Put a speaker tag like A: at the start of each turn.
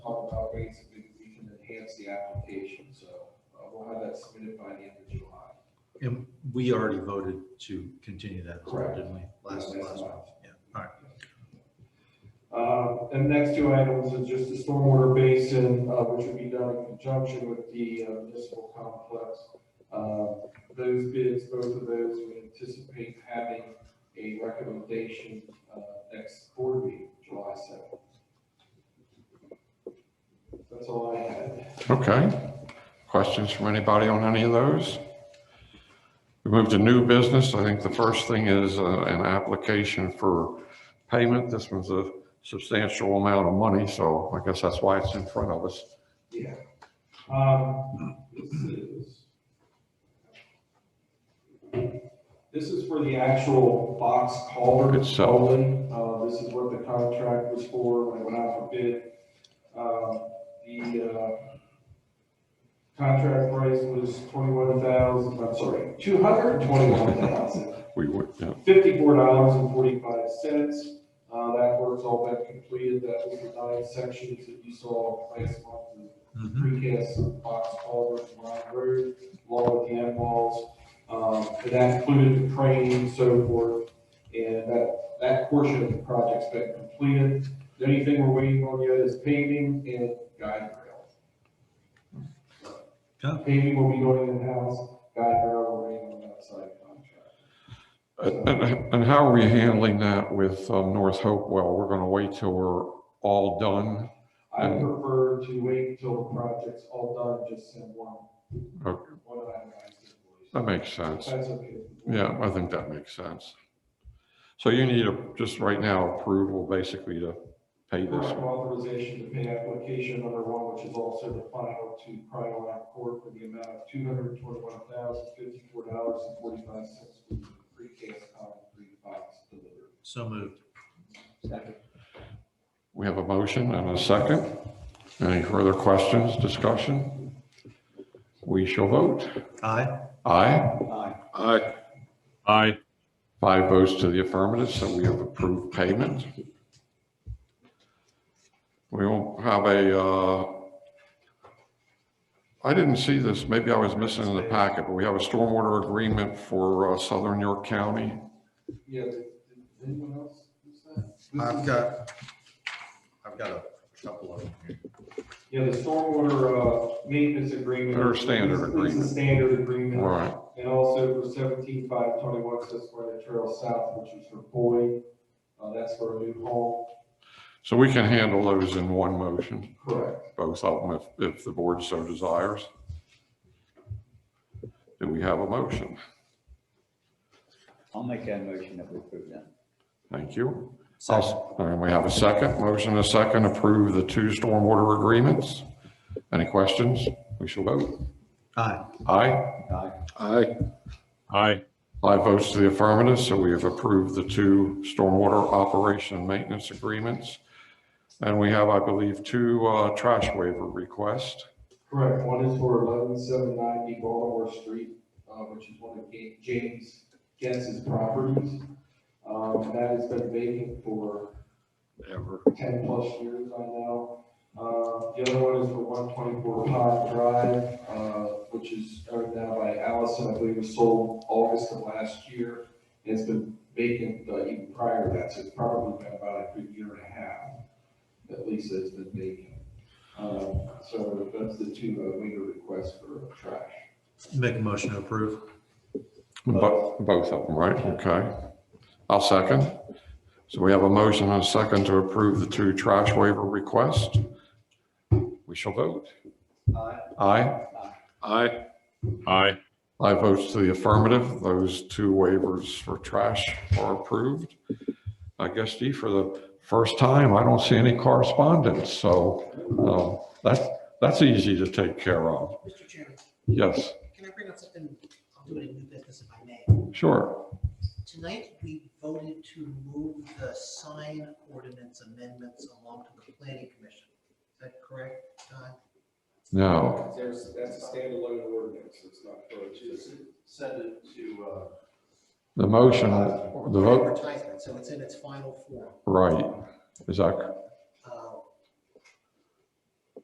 A: rates, we we can enhance the application, so uh, we'll have that submitted by the end of July.
B: And we already voted to continue that, as well,
A: Correct.
B: didn't we? Last,
A: Yeah,
B: last
A: that's
B: month, yeah, all right.
A: Uh, And next two items are just the stormwater basin, uh, which would be done in conjunction with the uh, municipal complex. Uh, Those bids, both of those, we anticipate having a recommendation uh, next board meeting, July 7th. That's all I had.
C: Okay. Questions from anybody on any of those? We move to new business. I think the first thing is uh, an application for payment. This one's a substantial amount of money, so I guess that's why it's in front of us.
A: Yeah. Um, This is This is for the actual box culvert.
C: Itself.
A: only. Uh, this is what the contract was for when it went out for bid. Um, The, uh, contract price was twenty-one thousand, I'm sorry, two hundred twenty-one thousand,
C: We would, yeah.
A: fifty-four dollars and forty-five cents. Uh, that work's all been completed. That was the nine sections that you saw placed on the
B: Mhm.
A: precast box culvert line road, along with the end walls. Um, and that included the crane and so forth, and that, that portion of the project's been completed. The only thing we're waiting on yet is paving and guide
B: Yeah.
A: rail. Paving will be going in-house, guide rail will be on the outside contract.
C: And, and- and how are we handling that with um, North Hopewell? We're going to wait till we're all done?
A: I prefer to wait till the project's all done, just send one,
C: Okay,
A: one itemized invoice.
C: That makes sense.
A: That's okay.
C: Yeah, I think that makes sense. So you need a, just right now approval basically to pay this
A: Correct
C: one.
A: authorization to pay application number one, which is also the final to Primeline Court for the amount of two hundred twenty-one thousand fifty-four dollars and forty-five cents for the precast concrete box delivered.
B: So moved.
C: We have a motion and a second. Any further questions, discussion? We shall vote.
B: Aye.
C: Aye.
A: Aye.
C: Aye.
D: Aye.
C: Five votes to the affirmative, so we have approved payment. We will have a, uh, I didn't see this, maybe I was missing in the packet, but we have a stormwater agreement for uh, Southern York County.
A: Yeah, did did anyone else miss that?
B: I've got, I've got a couple of them here.
A: Yeah, the stormwater, uh, maintenance agreement.
C: Their standard
A: It's-
C: agreement.
A: It's the standard agreement.
C: Right,
A: And also for seventeen five twenty-one Susquehanna Trail South, which is for Boyd, uh, that's for a new home.
C: so we can handle those in one motion,
A: Correct.
C: both of them, if, if the board so desires. Do we have a motion?
E: I'll make that motion that we approve that.
C: Thank you. I'll- And we have a second, motion and a second, approve the two stormwater agreements. Any questions? We shall vote.
B: Aye.
C: Aye.
E: Aye.
C: Aye.
D: Aye.
C: Five votes to the affirmative, so we have approved the two stormwater operation and maintenance agreements. And we have, I believe, two uh, trash waiver requests.
A: Correct, one is for eleven seven ninety Baltimore Street, uh, which is one of Ga- James Guess's properties. Um, and that has been vacant for
C: Ever.
A: ten plus years, I know. Uh, the other one is for one twenty-four Pond Drive, uh, which is owned now by Allison, I believe was sold August of last year. And It's been vacant, uh, even prior to that, so it's probably been about a good year and a half, at least that it's been vacant. Um, so that's the two, uh, waiver requests for trash.
B: Make a motion to approve.
C: Bo- Both of them, right? Okay. I'll second. So we have a motion and a second to approve the two trash waiver requests. We shall vote.
E: Aye.
C: Aye. Aye.
D: Aye.
C: Five votes to the affirmative. Those two waivers for trash are approved. I guess, Dee, for the first time, I don't see any correspondence, so um, that's, that's easy to take care of.
F: Mr. Chairman,
C: Yes,
F: can I bring up something, I'll do it in new business if I may.
C: sure.
F: Tonight, we voted to move the sign ordinance amendments along to the planning commission. Is that correct, Todd?
C: No.
A: There's, that's a standalone ordinance, it's not. Just send it to, uh.
C: The motion, the vote,
F: Advertisement, so it's in its final form. Uh,
C: right. Is that